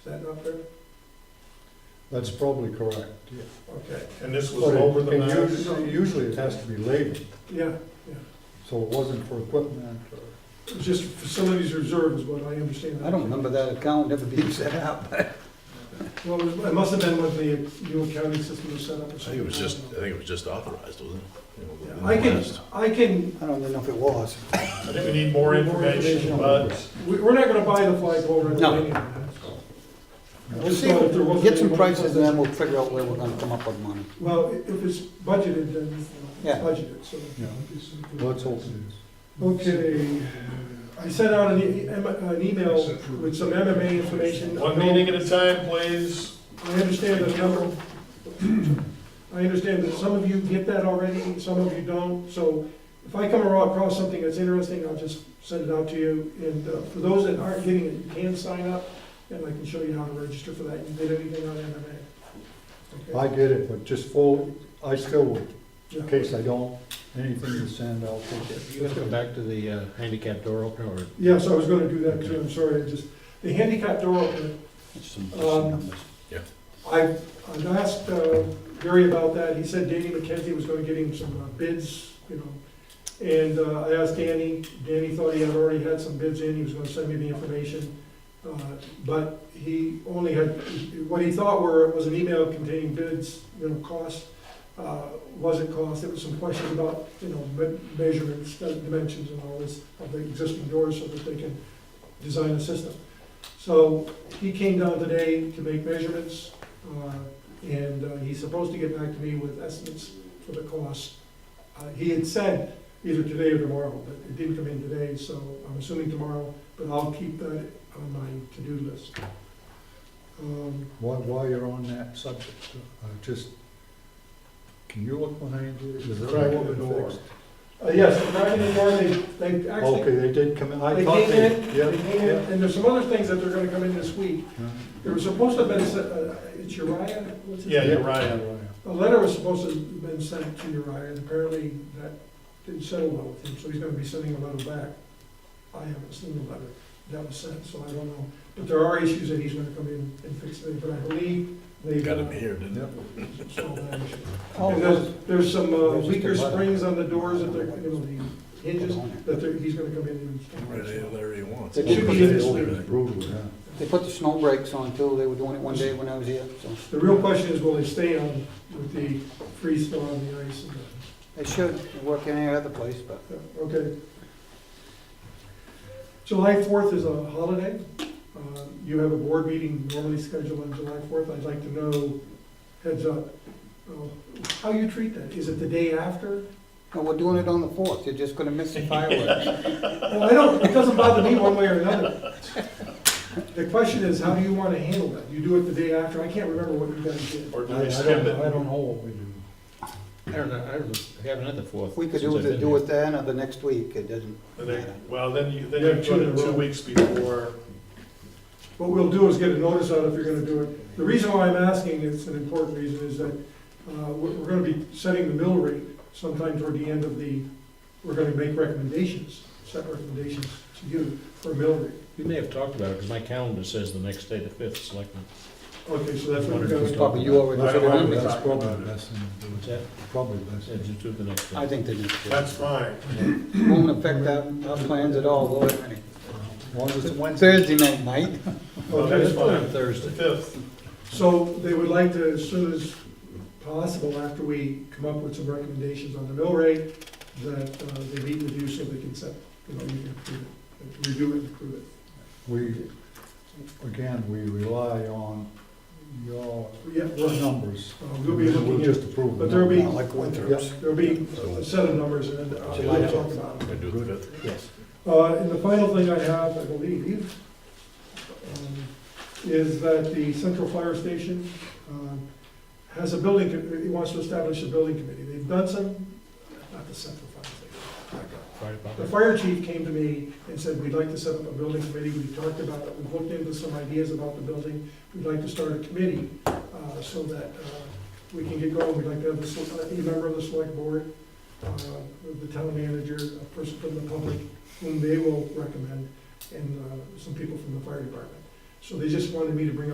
Is that not fair? That's probably correct, yeah. Okay, and this was But it- over the and mound? usually- Usually it has to be labeled, Yeah, so it wasn't for equipment or, it was just facilities reserve is what I understand. I don't remember that account ever being set up. Well, it was- it must have been when the new accounting system was set up or something. I think it was just, I don't know. think it was just authorized, wasn't it? You know, Yeah, in the I can, last- I can, I don't even know if it was. I think we need more information, but we- we're not gonna buy the flagpole right No. away. We'll see, get some prices and then we'll figure out where we're gonna come up with money. Well, i- if it's budgeted, then it's Yeah. budgeted, so. Yeah. let's hope it's Okay, I sent out an e- em- an email with some MMA information. one meeting at a time, please. I understand that number, I understand that some of you get that already, some of you don't, so if I come across something that's interesting, I'll just send it out to you, and uh, for those that aren't getting it, you can sign up, and I can show you how to register for that, you did anything on MMA. I get it, but just full, I still would, in Okay. case I don't, anything to send, I'll take it. You guys go back to the uh, handicap door opener, or Yeah, so I was gonna do that too, I'm sorry, I just, the handicap door opener, That's some some Um, numbers. I, I've asked uh, Gary about that, he said Danny McKenzie was gonna get him some uh, bids, you know. And uh, I asked Danny, Danny thought he had already had some bids in, he was gonna send me the information. Uh, But he only had, what he thought were, was an email containing bids, you know, cost, uh, wasn't cost, there was some questions about, you know, me- measurements, uh, dimensions and all this of the existing doors so that they can design a system. So he came down today to make measurements, uh, And uh, he's supposed to get back to me with estimates for the cost. Uh, He had said either today or tomorrow, but it didn't come in today, so I'm assuming tomorrow, but I'll keep that on my to-do list. Um, While, while you're on that subject, uh, just, can you look behind you? Is there a Crack in the door door. fixed? uh, Yes, the back in the door, they, they Okay, actually, they did come in, I they thought came they, in, yeah, they came in, and there's some other things that they're gonna come in this week. yeah. There was supposed to have been, se- uh, it's Uriah? what's his Yeah, name? you're right. A letter was supposed to have been sent to Uriah, and apparently that didn't settle well with him, so he's gonna be sending a letter back. I haven't seen the letter that was sent, so I don't know, but there are issues that he's gonna come in and fix it, but I believe they. Got him here, didn't it? Yep. solved that issue. Oh, And it there's, was- there's some uh, There's just a weaker letter. springs on the doors that they're, you know, the hinges, that they're, he's gonna come in and. Right, any letter he wants. It should be in this It's Brutal, yeah. They put the snow brakes on too, they were doing it one day when I was here, so The real question is, will they stay on with the freeze thaw on the ice and the they should work in any other place, but Yeah, Okay. July 4th is a holiday. Uh, You have a board meeting normally scheduled on July 4th. I'd like to know, heads up, uh, how you treat that? Is it the day after? no, we're doing it on the fourth, they're just gonna miss the fireworks. Well, I don't, it doesn't bother me one way or another. The question is, how do you want to handle that? You do it the day after? I can't remember what you guys did. Or do I, we I skip don't, I it? don't know what we do. I don't know, I don't, I haven't had the fourth. We could since do I've it, been do here. it then or the next week, it doesn't And matter. then- Well, then you, then Yeah, you two put in a it two row. weeks before. What we'll do is get a notice out if you're gonna do it. The reason why I'm asking, it's an important reason, is that uh, we're we're gonna be setting the mill rate sometime toward the end of the, we're gonna make recommendations, set recommendations to you for mill rate. We may have talked about it, because my calendar says the next day, the fifth, selectmen. Okay, so that's what we're gonna It's do. Probably you already I said don't it. want to That's talk probably about the it. best thing to What's do, that? probably the best. Yeah, thing. just do it the next day. I think they need to. That's fine. It Won't affect our, our plans at all, though. As long as it's Wednesday. Thursday night, Mike. No, Okay. that's fine. The Thursday. fifth. So they would like to, as soon as possible, after we come up with some recommendations on the mill rate, that uh, they meet with you so they can set, you know, you can approve it, review it and approve it. We, again, we rely on your Yeah, well, numbers. uh, we'll be looking We'll at. just approve. But there'll be, Not like Winthrop's. there'll be a set of numbers and then I'll July talk about Gonna them. do it the fifth. Yes. Uh, and the final thing I have, I believe, um, is that the Central Fire Station, um, has a building, com- it wants to establish a building committee. They've done some, not the Central Fire Station, my God. Fire The department. fire chief came to me and said, we'd like to set up a building committee, we talked about it, we looked into some ideas about the building, we'd like to start a committee, uh, so that, uh, we can get going, we'd like to have a, sel- a member of the select board, uh, the town manager, a person from the public, whom they will recommend, and, uh, some people from the fire department. So they just wanted me to bring up.